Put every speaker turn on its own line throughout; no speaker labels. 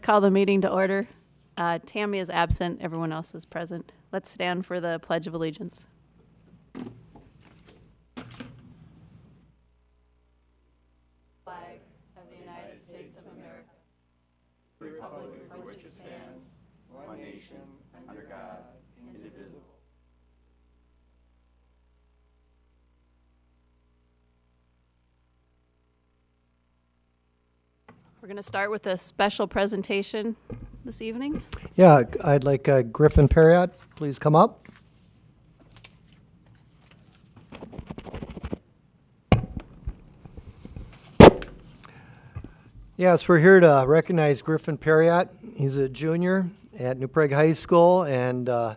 call the meeting to order. Uh, Tammy is absent, everyone else is present. Let's stand for the Pledge of Allegiance. We're going to start with a special presentation this evening.
Yeah, I'd like uh, Griffin Perriott, please come up. Yes, we're here to recognize Griffin Perriott. He's a junior at New Prague High School and uh,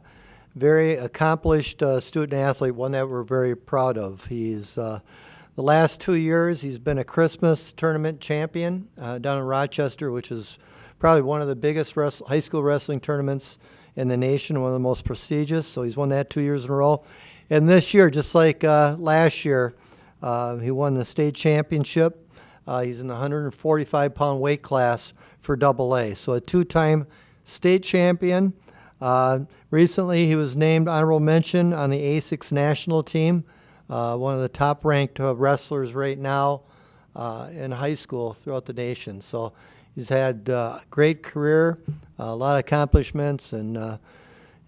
very accomplished uh, student athlete, one that we're very proud of. He's uh, the last two years he's been a Christmas tournament champion uh, down in Rochester, which is probably one of the biggest wrest- high school wrestling tournaments in the nation, one of the most prestigious. So he's won that two years in a row, and this year, just like uh, last year, uh, he won the state championship. Uh, he's in the 145 pound weight class for double A. So a two time state champion. Uh, recently, he was named honorable mention on the A6 national team, uh, one of the top ranked uh, wrestlers right now uh, in high school throughout the nation. So he's had uh, great career, uh, a lot of accomplishments, and uh,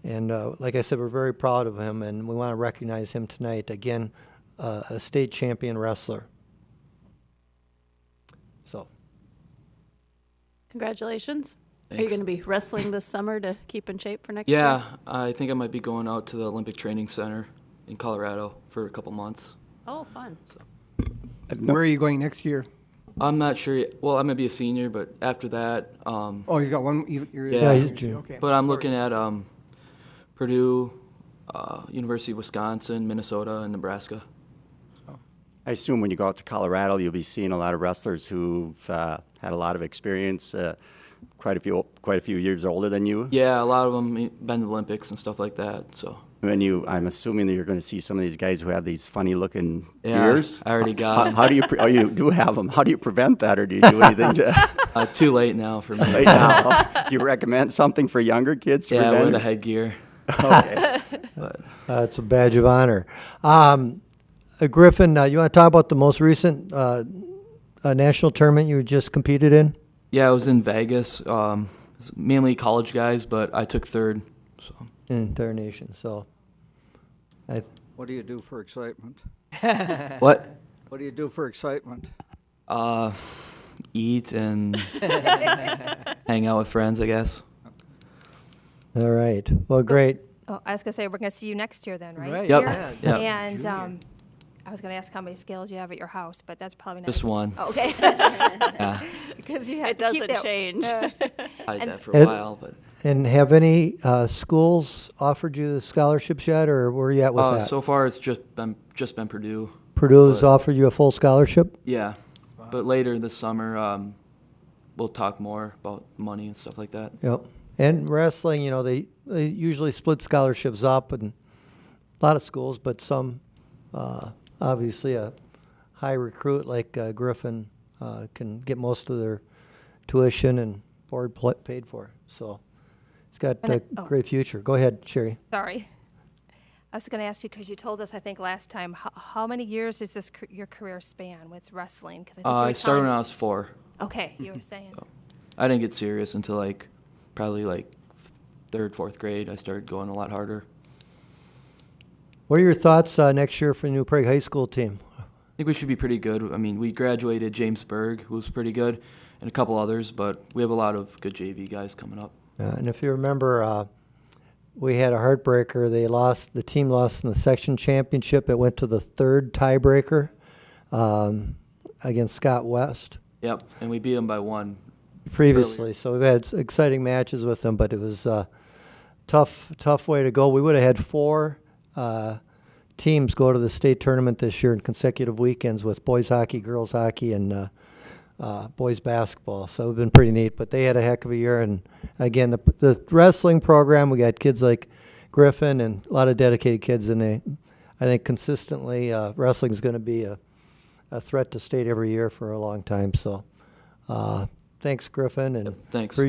and uh, like I said, we're very proud of him, and we want to recognize him tonight. Again, uh, a state champion wrestler. So,
Congratulations. Are you
Thanks.
going to be wrestling this summer to keep in shape for next year?
Yeah, I think I might be going out to the Olympic Training Center in Colorado for a couple months.
Oh, fun.
Where are you going next year?
I'm not sure. Yet. Well, I might be a senior, but after that, um,
Oh, you've got one. You've, you're,
Yeah, he's
junior.
Okay.
but I'm looking at um, Purdue, uh, University of Wisconsin, Minnesota, and Nebraska.
I assume when you go out to Colorado, you'll be seeing a lot of wrestlers who've uh, had a lot of experience, uh, quite a few, quite a few years older than you.
Yeah, a lot of them e, been to the Olympics and stuff like that. So
When you, I'm assuming that you're going to see some of these guys who have these funny-looking
Yeah,
ears.
I already got
How,
'em.
how do you? Pre- oh, you do have them. How do you prevent that, or do you do anything to?
uh, too late now for me.
right now? Do you recommend something for younger kids? To
yeah, I wear the
prevent?
headgear.
Okay.
uh, it's a badge of honor. Um, uh, Griffin, uh, you want to talk about the most recent uh, uh, national tournament you just competed in?
Yeah, I was in Vegas. Um, it's mainly college guys, but I took third. So
In entire nation. So, I,
What do you do for excitement?
what?
What do you do for excitement?
Uh, eat and hang out with friends, I guess.
all right. Well, great.
Oh, I was gonna say we're gonna see you next year then, right?
Right.
Yep.
Here?
Yep.
And
Junior.
um, I was gonna ask how many scales you have at your house, but that's probably not.
Just one.
Oh, okay.
Yeah,
Because you have
It
to keep
doesn't
that-
change.
I did
And-
that for a
Ed-
while, but
And have any uh, schools offered you the scholarships yet, or where are you at with
uh,
that?
so far it's just been just been Purdue.
Purdue has
but-
offered you a full scholarship?
Yeah, but later this summer um, we'll talk more about money and stuff like that.
Yep. And wrestling, you know, they, they usually split scholarships up and a lot of schools, but some, uh, obviously, a high recruit like uh, Griffin uh, can get most of their tuition and board pl- paid for. So he's got
And
a
I- oh.
great future. Go ahead, Sherry.
Sorry. I was gonna ask you because you told us I think last time how, how many years is this c- your career span with wrestling? Because I think
Uh,
you were
I started when
telling-
I was Oh. four.
Okay, you were saying.
I didn't get serious until like probably like third, fourth grade. I started going a lot harder.
What are your thoughts uh, next year for the New Prague High School team?
I think we should be pretty good. I mean, we graduated James Berg, who was pretty good, and a couple others, but we have a lot of good JV guys coming up.
Uh, and if you remember, uh, we had a heartbreaker. They lost. The team lost in the section championship. It went to the third tiebreaker um, against Scott West
Yep, and we beat them by one.
previously. So we've had s- exciting matches with them, but it was uh, tough, tough way to go. We would have had four uh, teams go to the state tournament this year in consecutive weekends with boys hockey, girls hockey, and uh, uh, boys basketball. So it's been pretty neat. But they had a heck of a year. And again, the, the wrestling program, we got kids like Griffin and a lot of dedicated kids, and they, I think, consistently uh, wrestling is going to be a a threat to state every year for a long time. So, uh, thanks, Griffin, and
Thanks.